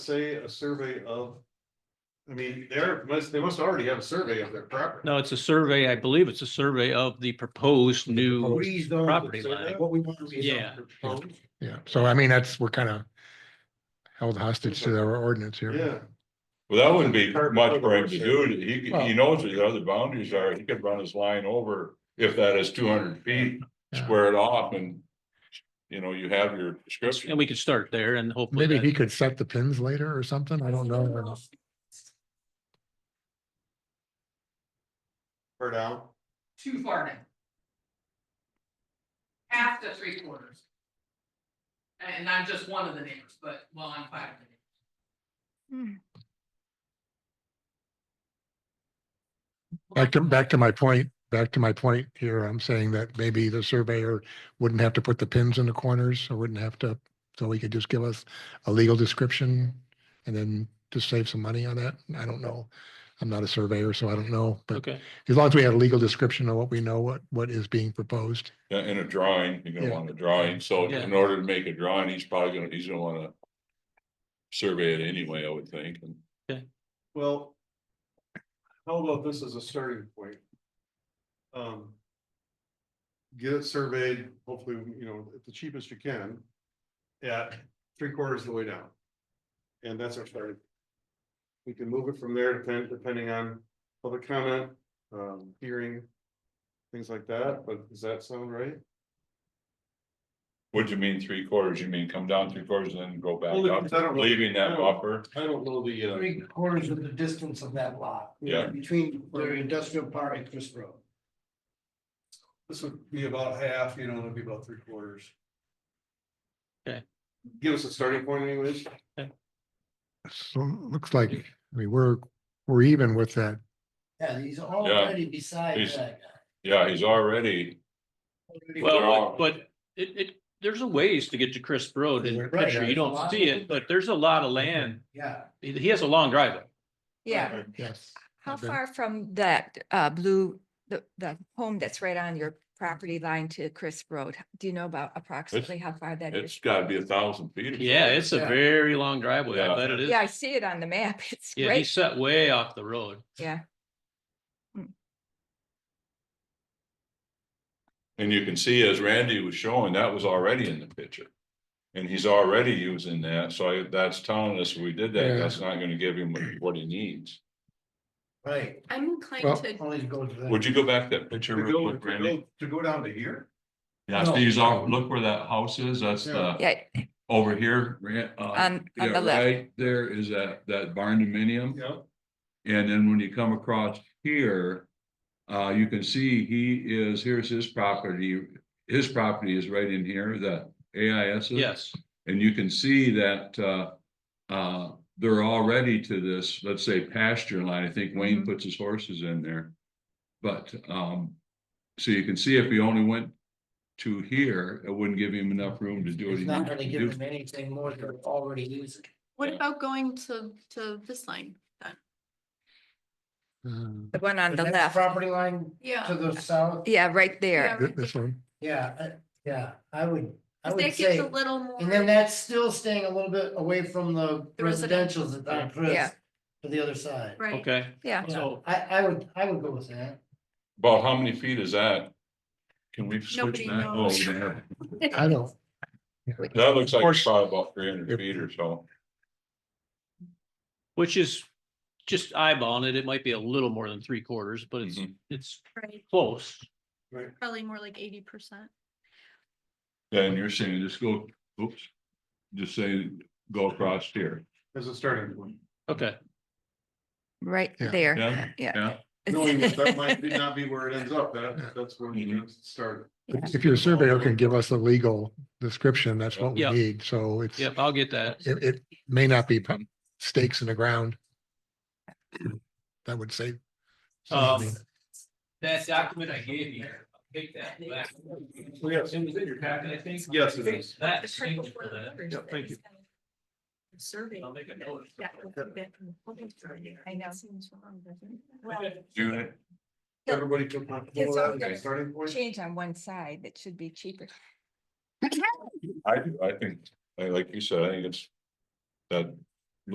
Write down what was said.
say a survey of? I mean, they're, must, they must already have a survey of their property. No, it's a survey, I believe it's a survey of the proposed new, Rezone, property so line. that- What we want to rezone. Yeah. Proposed? Yeah, so I mean, that's, we're kind of held hostage to our ordinance here. Yeah, Well, that wouldn't be Part- much part for him of to the do. He, could- he knows what the other boundaries are. He could run his line over if that is two hundred feet, Yeah. square it off and. You know, you have your and description. we could start there and hopefully. Maybe he that- could set the pins later or something. I don't know. or down. too far down. Half to three quarters. And I'm just one of the neighbors, but, well, I'm five of the neighbors. Hmm. Back to, back to my point, back to my point here, I'm saying that maybe the surveyor wouldn't have to put the pins in the corners or wouldn't have to, so he could just give us a legal description and then just save some money on that. I don't know. I'm not a surveyor, so I don't know, but Okay, as long as we have a legal description of what we know, what, what is being proposed. Yeah, In a drawing, you're Yeah. gonna want a drawing. So Yeah. in order to make a drawing, he's probably gonna, he's gonna wanna. Survey it anyway, I would think. And Well. How about this as a starting point? Um. Get it surveyed, hopefully, you know, at the cheapest you can. At three quarters of the way down. And that's our starting. We can move it from there depending, depending on public comment, um, hearing. Things like that, but does that sound right? What do you mean three quarters? You mean come down three quarters and then go back Only because I don't up, know- leaving I that don't- buffer? I don't know the, uh, Three quarters of the distance of that lot. Yeah. Between the industrial park and Chris Road. this would be about half, you know, it'd be about three quarters. Okay. Give us a starting point anyways. So it looks like, I mean, we're, we're even with that Yeah, he's already beside He's- that Yeah, he's already, guy. Well, well, but it, it, there's a ways to get to Crisp Road in the Right, picture, you there's a don't lot. see it, but there's a lot of land, Yeah. he, he has a long driveway. Yeah, Yes. how been- far from that uh blue, the the home that's right on your property line to Crisp Road? Do you know about approximately how far that it's is? gotta be a thousand feet. or Yeah, something. it's a Yeah. very long driveway, I Yeah. bet it is. Yeah, I see it on the map. It's Yeah, he's great. set way off the road. Yeah. And you can see as Randy was showing, that was already in the picture. And he's already using that, so I- that's telling us we did Yeah. that, that's not gonna give him what he needs. Right. I'm Well- inclined to, Always go to that. Would you go back to that picture? To real go, quick, to Randy? go- to go down to here? Yeah, No. Steve's out, look where that house is, that's the, Yeah, over here, Ran- uh, on on yeah, the left. right there is that, that barn dominium. Yeah. And then when you come across here, uh, you can see he is, here's his property. His property is right in here, the AIS. is. Yes, And you can see that, uh, uh, they're already to this, let's say pasture line. I think Wayne Mhm. puts his horses in there. But, um, so you can see if he only went to here, it wouldn't give him enough room to do what It's he not needed gonna to give do. them anything more than they're already using. Yeah. what about going to, to this line? Uh, The one on the next left. Property line to Uh, Yeah, the south, Yeah, right there. Yeah. thi- This one. yeah, I- yeah, I would, I that would gives say. a little more. And then that's still staying a little bit away from the The residential. residential's on Chris, Yeah. to the other side. Right, okay. Yeah. Yeah, So- I, I would, I would go with that. About how many feet is that? Can we switch Nobody that? Oh, knows. yeah. I don't. That looks like it's Or- probably about three hundred feet or so. Which is just eyeballing it, it might be a little more than three quarters, but it's, Mm-hmm. Mhm. it's right, close. probably more like eighty percent. Then you're saying just go, oops, just say, go across here. As a starting point. Okay, Right Yeah. Yeah. there. Yeah. Yeah, Knowing that that might be- not be where it ends up, that, that's where we Mhm. need to start. Yeah. If your surveyor can give us a legal description, that's what we Yeah. need. So it's, yep, it, I'll get that. it may not be put stakes in the ground. That would say. Um, That document I gave you, take that back. Yes. It was in your packet, I think. Yes, it is. That The purple changes for for the that. others Yeah, that thank is kind of Survey. I'll make a note. Yeah, we'll put that in the folder for you. I know. Seems wrong, doesn't it? Okay. do it. Everybody feel comfortable with that as a starting point? Change on one side. That should be cheaper. I do, I think, I- like you said, I think it's that